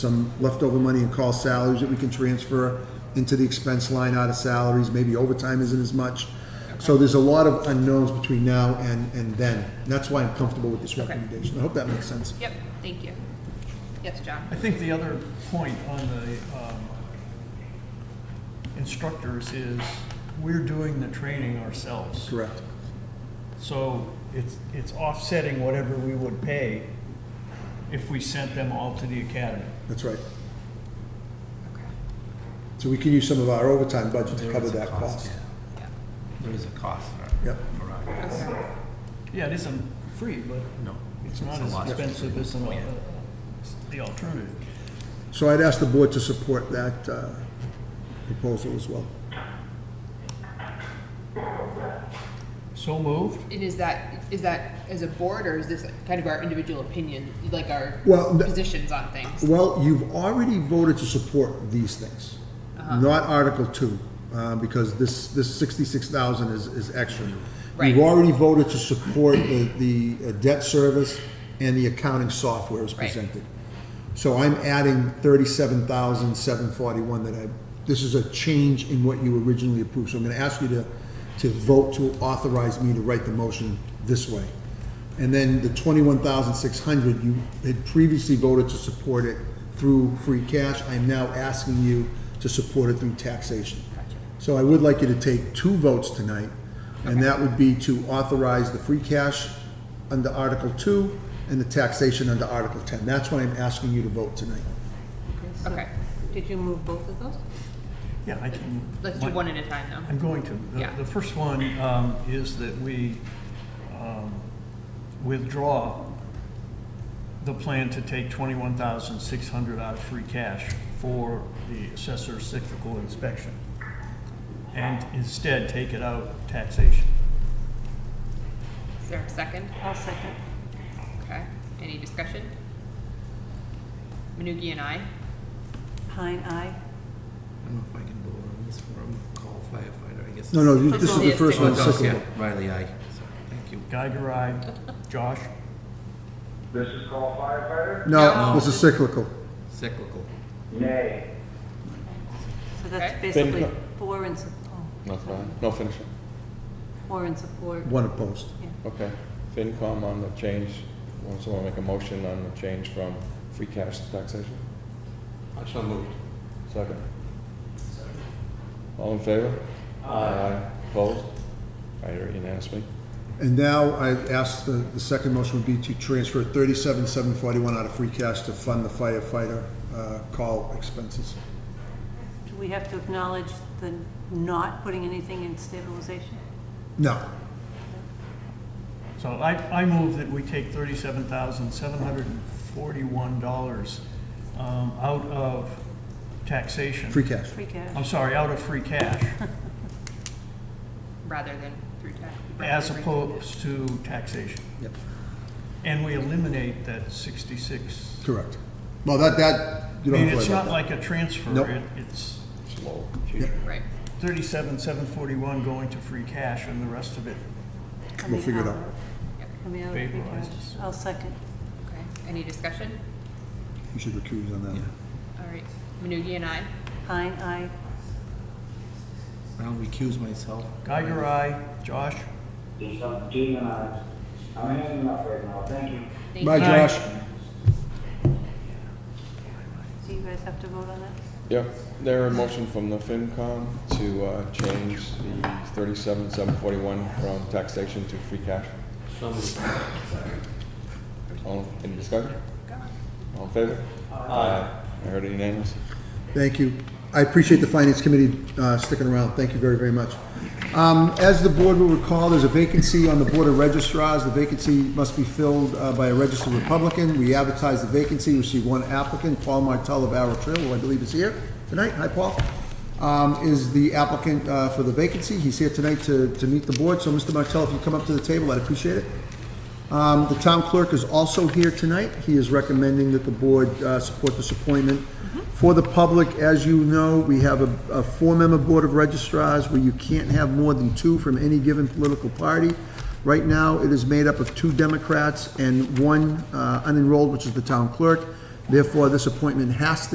some leftover money and call salaries that we can transfer into the expense line out of salaries, maybe overtime isn't as much. So there's a lot of unknowns between now and, and then. And That's why I'm comfortable with this recommendation. I hope that makes sense. Yep, thank you. Yes, John? I think the other point on the um, instructors is we're doing the training ourselves. Correct. So it's, it's offsetting whatever we would pay if we sent them all to the academy. That's right. So we can use some of our overtime budget to There cover is a that cost. yeah. Yeah. There is a cost Yep. for our, Okay. Yeah, it isn't free, but no. it's not a as lot. expensive as an al- the alternative. So I'd ask the board to support that uh, proposal as well. So moved? And is that, is that as a board, or is this kind of our individual opinion, like our Well, th- positions on things? Well, you've already voted to support these things, Uh-huh. not Article Two, uh, because this, this sixty-six thousand is, is extra. Right. You've already voted to support the, the debt service and the accounting software as Right. presented. So I'm adding thirty-seven thousand, seven forty-one that I, this is a change in what you originally approved. So I'm gonna ask you to, to vote to authorize me to write the motion this way. And then the twenty-one thousand, six hundred, you had previously voted to support it through free cash. I'm now asking you to support it through taxation. So I would like you to take two votes tonight, and that would be to authorize the free cash under Article 2 and the taxation under Article 10. That's what I'm asking you to vote tonight. Okay, Did you move both of those? Yeah, I can. let's do my- one at a time, though. I'm going to. The- Yeah. The first one um, is that we um, withdraw the plan to take 21,600 out of free cash for the assessor's cyclical inspection, and instead take it out of taxation. Is there a second? I'll second. Okay, any discussion? Manugie and I, Pine, aye. I don't know if I can vote on this for a call firefighter, I guess. No, no, you- this is the Let's first do one, it. Oh, second yeah, one. Riley, aye. Sorry, Thank you. Geiger, aye. Josh? This is called firefighter? No, this is cyclical. Cyclical. Nay. So Okay. that's basically Then- four in support. That's fine. No, finish it. Four in support. One opposed. Okay. FinCom on the change, wants someone make a motion on the change from free cash to taxation? I shall move. Second. All in favor? Aye. Opposed? All right, you're unanimously. And now I ask, the, the second motion would be to transfer 37,741 out of free cash to fund the firefighter uh, call expenses. Do we have to acknowledge the not putting anything in stabilization? No, So I, I move that we take thirty-seven thousand, seven hundred and forty-one dollars um, out of taxation. free cash. Free I'm cash? sorry, out of free cash. rather than through tax. as opposed to taxation. Yep. And we eliminate that 66. Correct. Well, that, that, I you don't mean, have it's to worry not about like a transfer. Nope. It- It's Slow. Right, 37, 741 going to free cash and the rest of it we'll figure it out. Coming out of free cash. Favorizes. I'll second. okay, any discussion? that. You should recuse on that. one. All right, Manugie and I, Pine, aye. I'll recuse myself. Geiger, aye. Josh? There's some demonized. I'm in enough right now, thank you. thank Bye, you. Aye. Josh. Do you guys have to vote on that? Yeah, there a motion from the FinCom to uh, change the thirty-seven, seven forty-one from taxation to free cash. All, any discussion? All in favor? Aye. I heard it unanimous. Thank you. I appreciate the Finance Committee uh, sticking around. Thank you very, very much. Um, As the board will recall, there's a vacancy on the Board of registrars. The vacancy must be filled uh, by a registered Republican. We advertised the vacancy, received one applicant, Paul Martell of Arrow Trail, who I believe is here tonight. Hi, Paul. Um, Is the applicant uh, for the vacancy. He's here tonight to, to meet the board. So, Mr. Martell, if you come up to the table, I'd appreciate it. Um, The town clerk is also here tonight. He is recommending that the board uh, support this appointment. For the public, as you know, we have a- a four-member board of registrars where you can't have more than two from any given political party. Right now, it is made up of two Democrats and one uh, unenrolled, which is the town clerk. Therefore, this appointment has to